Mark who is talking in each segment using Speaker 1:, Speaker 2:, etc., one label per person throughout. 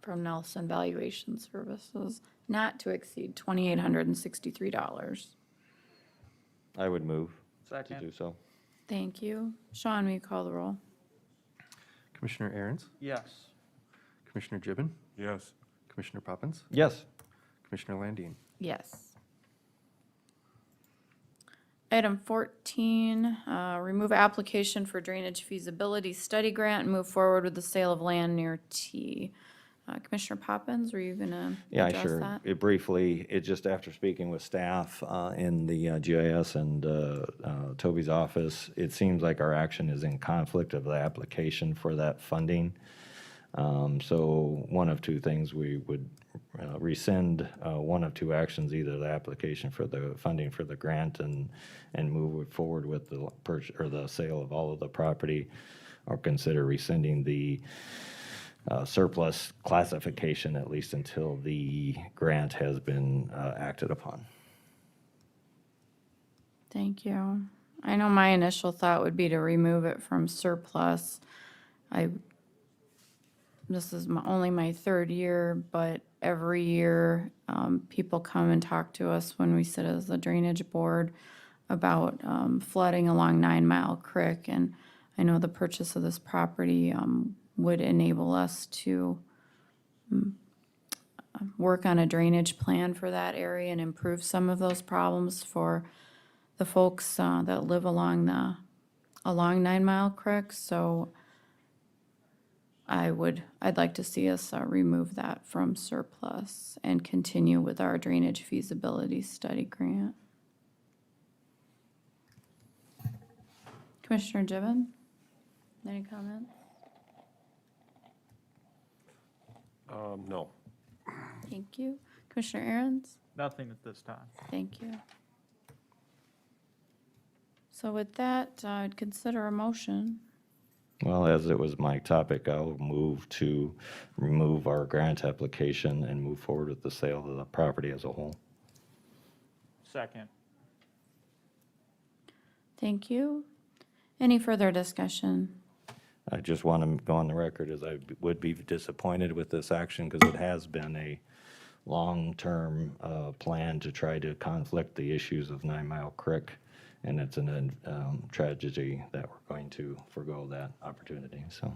Speaker 1: from Nelson Valuation Services not to exceed twenty-eight hundred and sixty-three dollars.
Speaker 2: I would move to do
Speaker 3: Second,
Speaker 2: so.
Speaker 1: Thank you. Sean, will you call the roll?
Speaker 4: Commissioner Aaron's,
Speaker 3: yes.
Speaker 4: Commissioner Gibbon,
Speaker 5: yes,
Speaker 4: Commissioner Poppins,
Speaker 2: Yes,
Speaker 4: Commissioner Landine.
Speaker 1: Yes. Item 14, uh, remove application for drainage feasibility study grant and move forward with the sale of land near T. Uh, Commissioner Poppins, were you going to
Speaker 2: yeah, I
Speaker 1: address
Speaker 2: sure.
Speaker 1: that?
Speaker 2: It briefly, it just after speaking with staff uh, in the uh, GIS and uh, uh, Toby's office, it seems like our action is in conflict of the application for that funding. Um, So one of two things, we would uh, rescind uh, one of two actions, either the application for the funding for the grant and, and move it forward with the purchase, or the sale of all of the property, or consider rescinding the uh, surplus classification, at least until the grant has been uh, acted upon.
Speaker 1: Thank you. I know my initial thought would be to remove it from surplus. I, this is my, only my third year, but every year, um, people come and talk to us when we sit as the drainage board about, um, flooding along Nine Mile Creek. And I know the purchase of this property, um, would enable us to mm, uh, work on a drainage plan for that area and improve some of those problems for the folks uh, that live along the, along Nine Mile Creek, so I would, I'd like to see us uh, remove that from surplus and continue with our drainage feasibility study grant. Commissioner Gibbon? Any comment?
Speaker 5: um, no.
Speaker 1: Thank you. Commissioner Aaron's?
Speaker 3: Nothing at this time.
Speaker 1: Thank you. So with that, I'd consider a motion.
Speaker 2: Well, as it was my topic, I'll move to remove our grant application and move forward with the sale of the property as a whole.
Speaker 3: Second,
Speaker 1: Thank you. Any further discussion?
Speaker 2: I just want to go on the record as I would be disappointed with this action because it has been a long-term uh, plan to try to conflict the issues of Nine Mile Creek, and it's an um, tragedy that we're going to forego that opportunity, so.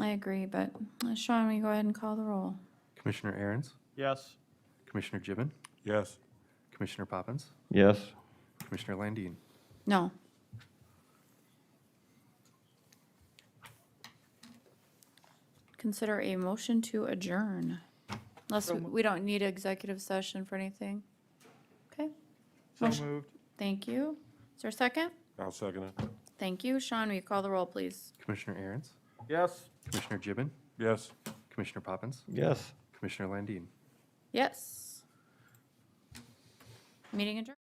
Speaker 1: I agree, but uh, Sean, will you go ahead and call the roll?
Speaker 4: Commissioner Aaron's,
Speaker 3: yes.
Speaker 4: Commissioner Gibbon,
Speaker 5: Yes,
Speaker 4: Commissioner Poppins,
Speaker 2: Yes,
Speaker 4: Commissioner Landine.
Speaker 1: No. Consider a motion to adjourn. Unless we- we don't need executive session for anything. Okay,
Speaker 3: So
Speaker 1: Motion-
Speaker 3: moved,
Speaker 1: thank you. Is there a second?
Speaker 5: I'll second it.
Speaker 1: Thank you. Sean, will you call the roll, please?
Speaker 4: Commissioner Aaron's,
Speaker 3: yes.
Speaker 4: Commissioner Gibbon,
Speaker 5: Yes.
Speaker 4: Commissioner Poppins,
Speaker 2: yes.
Speaker 4: Commissioner Landine.
Speaker 1: Yes. Meeting adjourned.